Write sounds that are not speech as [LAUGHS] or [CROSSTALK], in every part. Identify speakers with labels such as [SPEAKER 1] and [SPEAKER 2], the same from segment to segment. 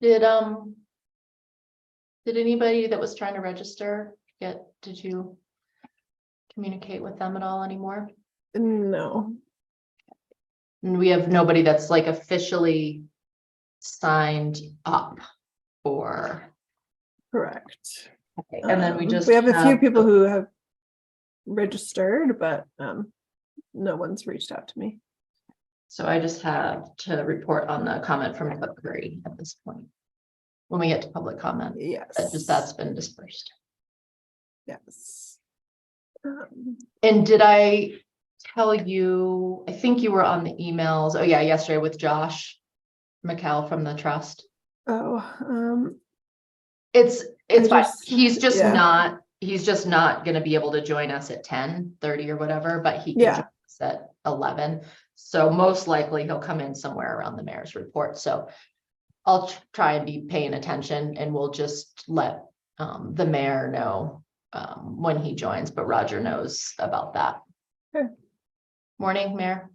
[SPEAKER 1] Did, um. Did anybody that was trying to register get, did you? Communicate with them at all anymore?
[SPEAKER 2] No,
[SPEAKER 1] And we have nobody that's like officially signed up for.
[SPEAKER 2] correct.
[SPEAKER 1] Okay, And then we
[SPEAKER 2] Um,
[SPEAKER 1] just.
[SPEAKER 2] We have a few people who have registered, but um, no one's reached out to me.
[SPEAKER 1] So I just have to report on the comment from Doug Curry at this point. When we get to public comment,
[SPEAKER 2] Yes.
[SPEAKER 1] that just that's been dispersed.
[SPEAKER 2] Yes. Um,
[SPEAKER 1] And did I tell you, I think you were on the emails, oh yeah, yesterday with Josh McCall from the trust.
[SPEAKER 2] Oh, um,
[SPEAKER 1] It's, it's, fine.
[SPEAKER 2] just-
[SPEAKER 1] he's just
[SPEAKER 2] yeah.
[SPEAKER 1] not, he's just not gonna be able to join us at 10, 30 or whatever, but he can
[SPEAKER 2] Yeah.
[SPEAKER 1] join us at eleven. So most likely he'll come in somewhere around the mayor's report, so I'll tr- try and be paying attention and we'll just let um the mayor know um when he joins, but Roger knows about that.
[SPEAKER 2] Sure.
[SPEAKER 1] Morning, Mayor.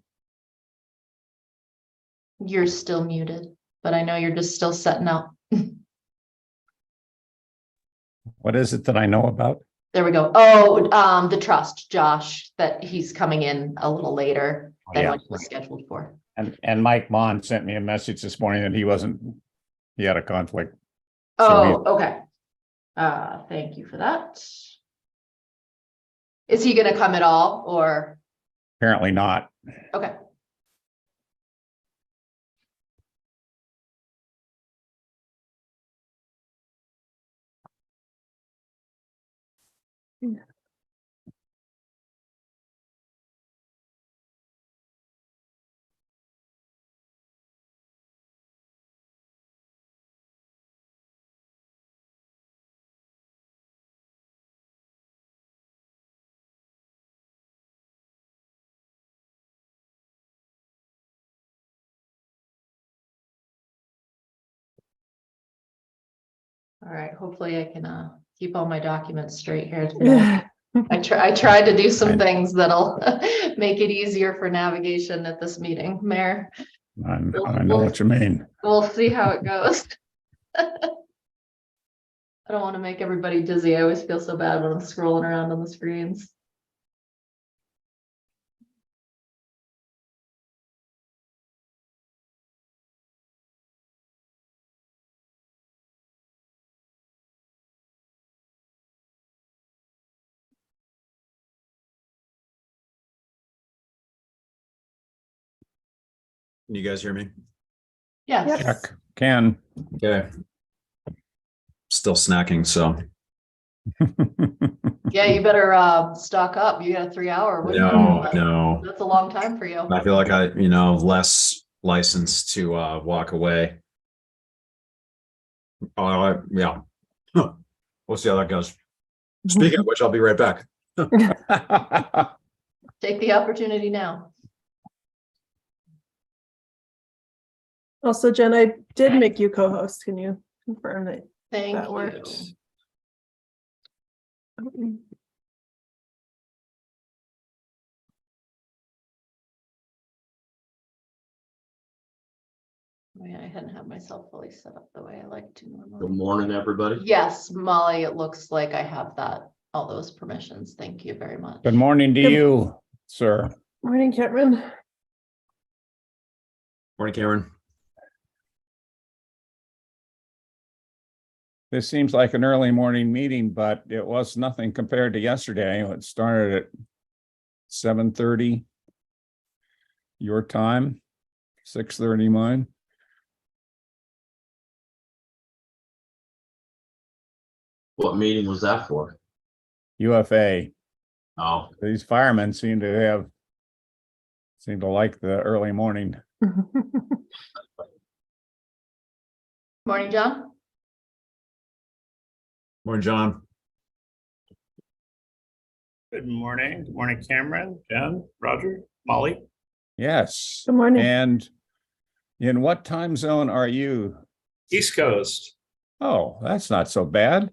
[SPEAKER 1] You're still muted, but I know you're just still setting up.
[SPEAKER 3] What is it that I know about?
[SPEAKER 1] There we go. Oh, um, the trust, Josh, that he's coming in a little later than
[SPEAKER 3] Oh, Yeah.
[SPEAKER 1] what he was scheduled for.
[SPEAKER 3] And, and Mike Mon sent me a message this morning that he wasn't, he had a conflict. So
[SPEAKER 1] Oh, okay. Uh, thank you for that. Is he gonna come at all or,
[SPEAKER 3] Apparently not.
[SPEAKER 1] okay, all right, hopefully I can, uh, keep all my documents straight here.
[SPEAKER 2] [LAUGHS]
[SPEAKER 1] today. I try, I tried to do some
[SPEAKER 3] Fine.
[SPEAKER 1] things that'll [LAUGHS] make it easier for navigation at this meeting, Mayor.
[SPEAKER 3] I I know what you mean.
[SPEAKER 1] We'll see how it goes. [LAUGHS] I don't want to make everybody dizzy. I always feel so bad when I'm scrolling around on the screens.
[SPEAKER 4] Can you guys hear me?
[SPEAKER 1] Yes.
[SPEAKER 2] Yep.
[SPEAKER 3] Check, can.
[SPEAKER 4] Okay. Still snacking, so
[SPEAKER 1] Yeah, you better uh stock up. You got a three hour. window.
[SPEAKER 4] no, no.
[SPEAKER 1] That's a long time for you.
[SPEAKER 4] I feel like I, you know, less license to uh walk away. Oh, I- yeah. [LAUGHS] Huh. We'll see how that goes. Speaking of which, I'll be right back.
[SPEAKER 1] Take the opportunity now.
[SPEAKER 2] Also, Jen, I did make you co-host. Can you confirm that?
[SPEAKER 1] Thank
[SPEAKER 2] That
[SPEAKER 1] you.
[SPEAKER 2] worked.
[SPEAKER 1] Man, Oh, I hadn't had myself fully set up the way I like to
[SPEAKER 5] Good
[SPEAKER 1] normally.
[SPEAKER 5] morning, everybody.
[SPEAKER 1] Yes, Molly, it looks like I have that, all those permissions. Thank you very much.
[SPEAKER 3] Good morning to you, sir.
[SPEAKER 2] Morning, Cameron. [LAUGHS]
[SPEAKER 4] Morning, Cameron.
[SPEAKER 3] This seems like an early morning meeting, but it was nothing compared to yesterday. It started at seven thirty your time, six thirty mine.
[SPEAKER 5] What meeting was that for?
[SPEAKER 3] UFA.
[SPEAKER 5] Oh,
[SPEAKER 3] These firemen seem to have seem to like the early morning.
[SPEAKER 1] Morning, John.
[SPEAKER 4] Morning, John.
[SPEAKER 6] Good morning. Good morning, Cameron, Jen, Roger, Molly.
[SPEAKER 3] Yes.
[SPEAKER 2] Good morning.
[SPEAKER 3] And in what time zone are you?
[SPEAKER 6] East Coast.
[SPEAKER 3] Oh, that's not so bad.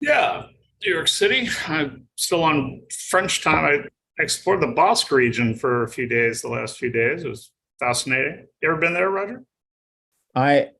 [SPEAKER 6] Yeah, New York City. I'm still on French time. I explored the Bosque region for a few days, the last few days. It was fascinating. You ever been there, Roger?
[SPEAKER 3] I